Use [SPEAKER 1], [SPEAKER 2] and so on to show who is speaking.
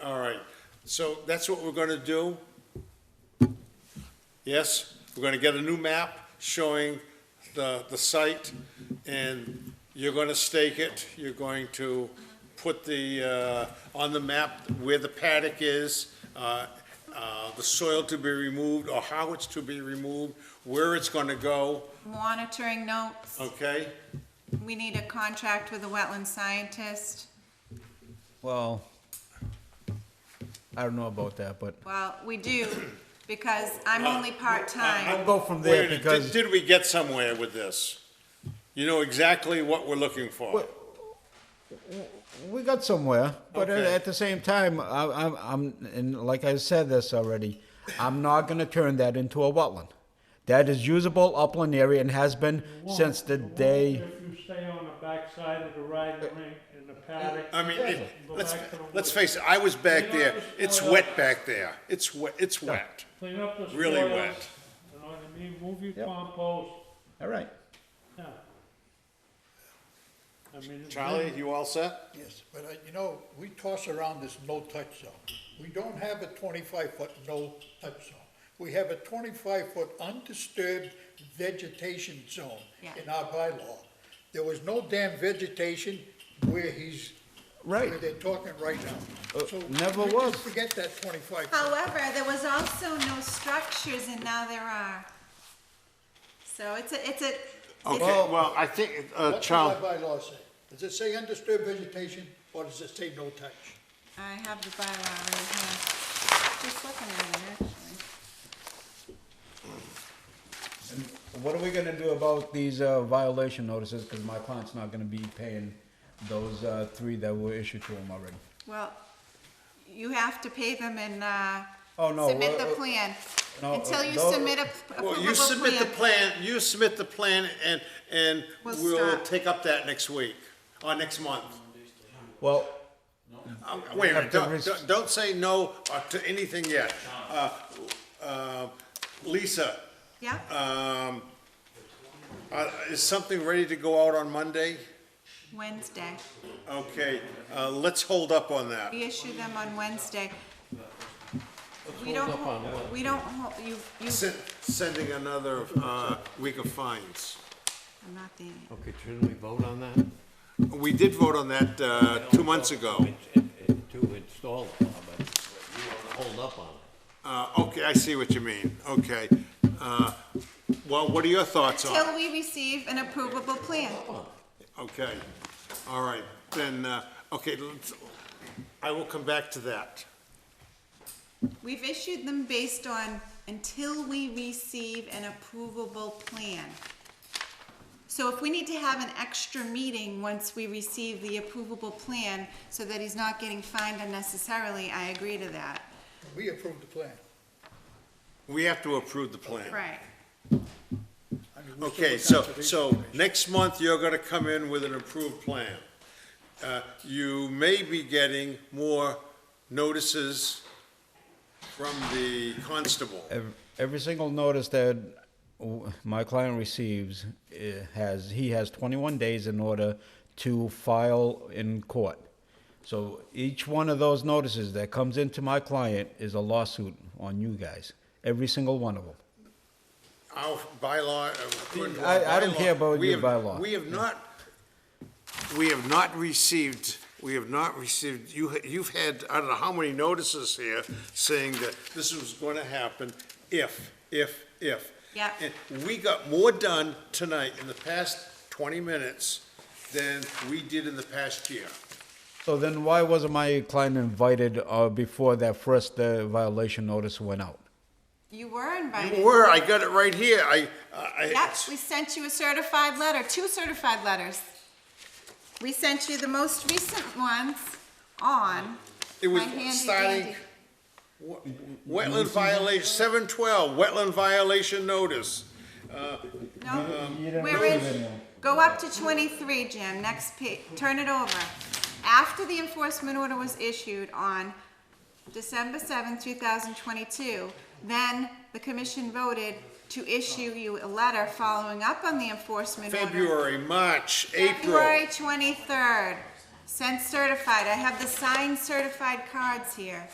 [SPEAKER 1] So that's what we're gonna do. Yes, we're gonna get a new map showing the, the site, and you're gonna stake it, you're going to put the, uh, on the map where the paddock is, uh, uh, the soil to be removed, or how it's to be removed, where it's gonna go,
[SPEAKER 2] Monitoring notes,
[SPEAKER 1] okay?
[SPEAKER 2] we need a contract with a wetland scientist.
[SPEAKER 3] Well, I don't know about that, but
[SPEAKER 2] Well, we do, because I'm only
[SPEAKER 1] I'll uh,
[SPEAKER 2] part-time.
[SPEAKER 3] go from there because-
[SPEAKER 1] Did we get somewhere with this? You know exactly what we're looking for.
[SPEAKER 3] we got somewhere. But at-
[SPEAKER 1] Okay.
[SPEAKER 3] at the same time, I, I'm, I'm, and like I said this already, I'm not going to turn that into a wetland. That is usable upland area and has been since the
[SPEAKER 4] Well,
[SPEAKER 3] day.
[SPEAKER 4] If you stay on the backside of the riding rink in the paddock.
[SPEAKER 1] Uh, I mean, it-
[SPEAKER 4] go
[SPEAKER 1] let's,
[SPEAKER 4] back to the
[SPEAKER 1] let's
[SPEAKER 4] woods.
[SPEAKER 1] face it, I was back there, it's wet back there, it's wet, it's wet.
[SPEAKER 4] Clean up the soils.
[SPEAKER 1] really
[SPEAKER 4] You know
[SPEAKER 1] wet.
[SPEAKER 4] what I mean? Move your
[SPEAKER 3] Yep.
[SPEAKER 4] compost,
[SPEAKER 3] All right.
[SPEAKER 4] yeah. I mean, it's been-
[SPEAKER 1] Charlie, you all set?
[SPEAKER 5] Yes, but uh, you know, we toss around this no-touch zone. We don't have a twenty-five foot no-touch zone. We have a twenty-five foot undisturbed vegetation zone
[SPEAKER 2] Yeah.
[SPEAKER 5] in our bylaw. There was no damn vegetation where he's, where
[SPEAKER 3] Right.
[SPEAKER 5] they're talking right now.
[SPEAKER 3] Uh,
[SPEAKER 5] So
[SPEAKER 3] never
[SPEAKER 5] we
[SPEAKER 3] was.
[SPEAKER 5] just Forget that twenty-five. foot.
[SPEAKER 2] However, there was also no structures, and now there are. So it's a, it's a, it's
[SPEAKER 1] well, I think, uh,
[SPEAKER 5] What does our bylaw say? Does it say undisturbed vegetation or does it say no-touch?
[SPEAKER 2] a, I have the bylaw right here. Just looking at it, actually.
[SPEAKER 3] What are we going to do about these uh, violation notices? Because my client's not going to be paying those uh, three that were issued to him already.
[SPEAKER 2] Well, you have to pay them and, uh,
[SPEAKER 3] Oh, no,
[SPEAKER 2] submit
[SPEAKER 3] well,
[SPEAKER 2] the
[SPEAKER 3] uh,
[SPEAKER 2] plan.
[SPEAKER 3] no,
[SPEAKER 2] Until you
[SPEAKER 3] those-
[SPEAKER 2] submit a a
[SPEAKER 1] Well,
[SPEAKER 2] approvable
[SPEAKER 1] you submit the
[SPEAKER 2] plan.
[SPEAKER 1] plan, you submit the plan, and, and
[SPEAKER 2] We'll
[SPEAKER 1] we'll
[SPEAKER 2] stop.
[SPEAKER 1] take up that next week, or next month.
[SPEAKER 3] Well,
[SPEAKER 1] Uh, Wait a
[SPEAKER 3] have
[SPEAKER 1] minute,
[SPEAKER 3] to
[SPEAKER 1] don't,
[SPEAKER 3] res-
[SPEAKER 1] don't- don't say no uh, to anything yet. Uh, uh, Lisa,
[SPEAKER 2] Yeah,
[SPEAKER 1] um, uh, is something ready to go out on Monday?
[SPEAKER 2] Wednesday.
[SPEAKER 1] Okay, uh, let's hold up on that.
[SPEAKER 2] We issue them on Wednesday. We don't, ho- we don't, ho- you, you,
[SPEAKER 1] Sen- Sending another uh, week of fines.
[SPEAKER 2] I'm not the,
[SPEAKER 6] Okay, shouldn't we vote on that?
[SPEAKER 1] We did vote on that uh, two months ago.
[SPEAKER 6] To install it, but you want to hold up on it.
[SPEAKER 1] Uh, Okay, I see what you mean, okay. Uh, Well, what are your thoughts on it?
[SPEAKER 2] till we receive an approvable plan.
[SPEAKER 1] Okay, all right, then, uh, okay, let's- I will come back to that.
[SPEAKER 2] We've issued them based on until we receive an approvable plan. So if we need to have an extra meeting once we receive the approvable plan, so that he's not getting fined unnecessarily, I agree to that.
[SPEAKER 5] We approved the plan.
[SPEAKER 1] We have to approve the plan.
[SPEAKER 2] Right.
[SPEAKER 5] I mean, we're still
[SPEAKER 1] Okay,
[SPEAKER 5] a
[SPEAKER 1] so,
[SPEAKER 5] conservation
[SPEAKER 1] so next month, you're gonna come in with an approved plan. Uh, You may be getting more notices from the constable.
[SPEAKER 3] Every, every single notice that w- my client receives eh, has, he has 21 days in order to file in court. So each one of those notices that comes into my client is a lawsuit on you guys, every single one of them.
[SPEAKER 1] Our bylaw. uh, according to
[SPEAKER 3] I-
[SPEAKER 1] our
[SPEAKER 3] I don't
[SPEAKER 1] bylaw,
[SPEAKER 3] care about
[SPEAKER 1] we
[SPEAKER 3] your
[SPEAKER 1] have-
[SPEAKER 3] bylaw.
[SPEAKER 1] We have not, we have not received, we have not received, you, ha- you've had, I don't know how many notices here saying that this was going to happen if, if, if.
[SPEAKER 2] Yeah.
[SPEAKER 1] And we got more done tonight in the past twenty minutes than we did in the past year.
[SPEAKER 3] So then why wasn't my client invited uh, before that first uh, violation notice went out?
[SPEAKER 2] You were invited.
[SPEAKER 1] You were, I got it right here, I, I.
[SPEAKER 2] Yep, we sent you a certified letter, two certified letters. We sent you the most recent ones on
[SPEAKER 1] It was
[SPEAKER 2] my handy
[SPEAKER 1] starting,
[SPEAKER 2] dandy.
[SPEAKER 1] wetland violation, seven twelve, wetland violation notice.
[SPEAKER 2] No, we're in, go up to twenty-three, Jim, next pa, turn it over. After the enforcement order was issued on December seventh, two thousand twenty-two, then the commission voted to issue you a letter following up on the enforcement order.
[SPEAKER 1] February, March, April.
[SPEAKER 2] February twenty-third, sent certified, I have the signed certified cards here.